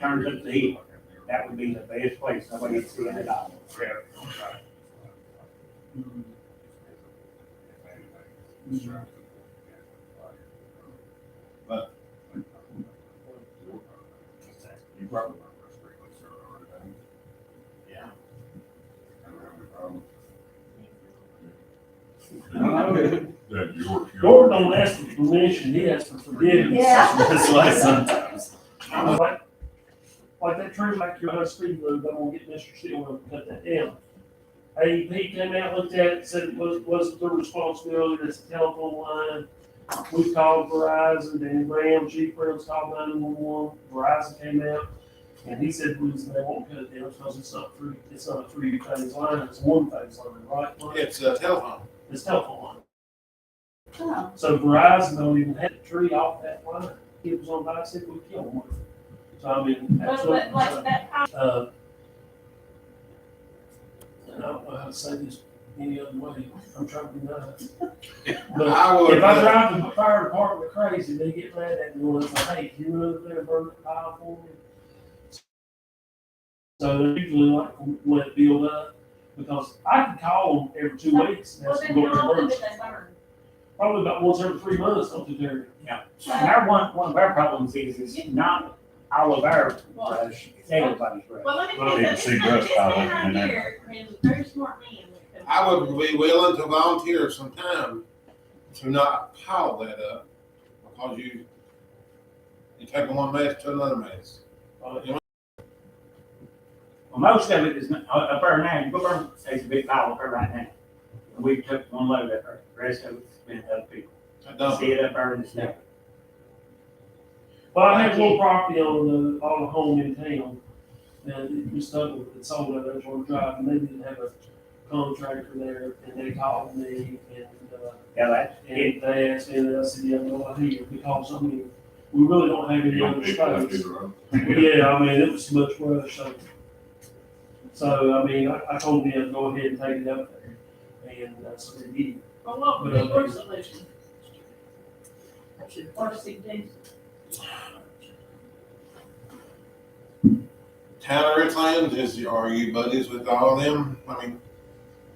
turns up the heat, that would be the best place, nobody gets three hundred dollars. But. You probably. Yeah. That York. Gordon don't ask for permission, he asks for forgiveness. Yeah. That's why sometimes. Like, like that tree back here by the speed limit, but we'll get Mr. Steele to cut that down. AEP came out, looked at it, said it was, wasn't their responsibility, that's a telephone line. We called Verizon, Danny Ram, Chief Brown's called nine one one, Verizon came out. And he said, we just, they won't cut it down, because it's not three, it's not a three phase line, it's one phase line, right? Mike? It's a telephone. It's telephone line. Oh, So Verizon don't even have a tree off that line. It was on bicycle, we killed one. So I mean, that's but, but like what, that, house- uh, and I don't know how to say this any other way. I'm trying to be nice. But I would, if I uh, drive the fire department crazy, they get mad at me when I say, hey, you were over there burning the pile for me. So they usually like let it build up because I can call them every two weeks. and well, ask then them how to go to often work. did they burn? Probably about once every three months, something there. And our one, one of our problems is, is not all of our Well, brush, it's everybody's brush. Well, let me Well, tell you you, can this see this Russ man probably in right there. here, I mean, very smart man. when it comes to- I would be willing to volunteer some time to not pile that up because you, you take one mess to another mess. Well, most of it is, not- uh, up there now, you go burn, there's a big pile up there right now. And we took one load up there, the rest of it's been other people. I don't. See it up there in the snow. Well, I have one property on the, on a home in town, and it was sold, it sold at Edgewater Drive, and they didn't have a contractor there, and they called me, and, uh, Yeah, that's, it, and they asked me, and I said, yeah, no, I hear, because, I mean, we really don't have any other space. Yeah, I mean, it was much worse, so. So, I mean, I, I told them, go ahead and take it up there, and that's what they did. Well, what would be your solution? Or suggestion? Town of Richlands is, are you buddies with all them? I mean,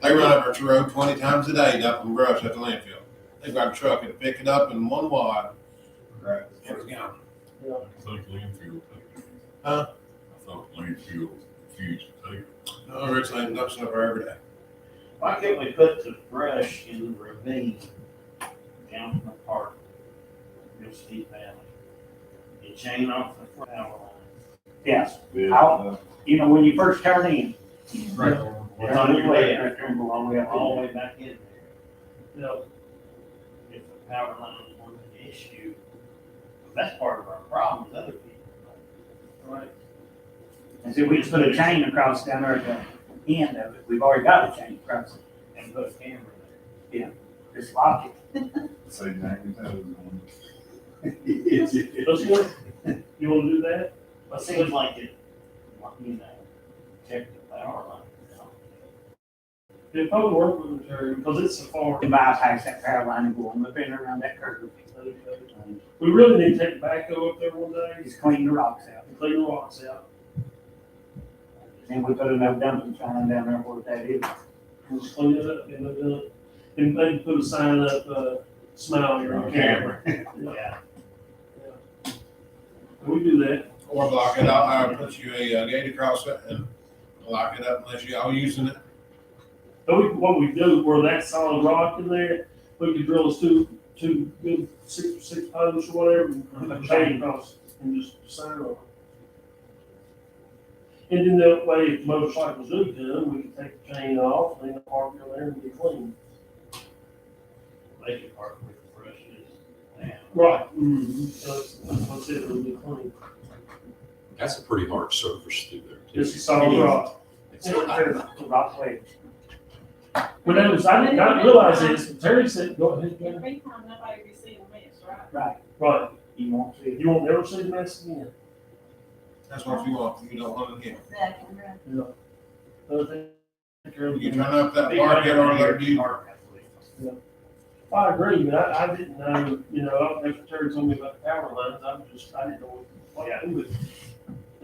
they run up our road twenty times a day, dumping brush at the landfill. They've got a truck and pick it up in one wad. Right. And it's gone. It's like landfill. Huh? I thought landfill refused to take it. No, Richlands dumps it up there every day. Why can't we put the brush in the ravine down from the park, real steep valley? And chain off the power line. yeah, I'll- you know, when you first turn in, it's on your way, Yeah. right there, go all the way up. All the way back in there. You know, If the power line was an issue, that's part of our problem, is other people. right? And so we just put a chain across down there at the end of it, we've already got a chain across it, And put a camera there. just lock it. Say ninety thousand. Let's go. You wanna do that? But it seems like it, you know, check the power line. you know. It probably work with the term, because it's so far. And bypass that power line and go on up in around that curve. We really need to take the backhoe up there one day, Just clean the rocks out. and clean the rocks out, Then we put another dumping sign down there where that is. and just clean it up, and then, uh, and maybe put a sign up, uh, smile here on camera. Yeah, Can we do that? Or block it out, I'll put you a uh, gate across it and lock it up unless you all using it. But we, what we do, where that solid rock in there, we could drill us two, two good six, six posts or whatever, and put a chain across, and just sign on. And then that way, if motorcycles do come, we can take the chain off, and then park it there and be clean. they could park with the brushes now. Right. So it's, that's it, it'll be clean. That's a pretty hard surface through there. too. It's a solid rock. It's Yeah. not- The rock ledge. But that was, I did not realize this, Terry said, go ahead, In Terry. free time, nobody received a mess, right? Right, Right, you won't see it. you won't never see the mess again. That's what you want, you don't want it here. Exactly, right. Other thing, take care of You it. turn up that park, get on there, you. Park, I believe. I agree, but I, I didn't know, you know, after Terry told me about the power lines, I'm just, I didn't know what, what to do with it.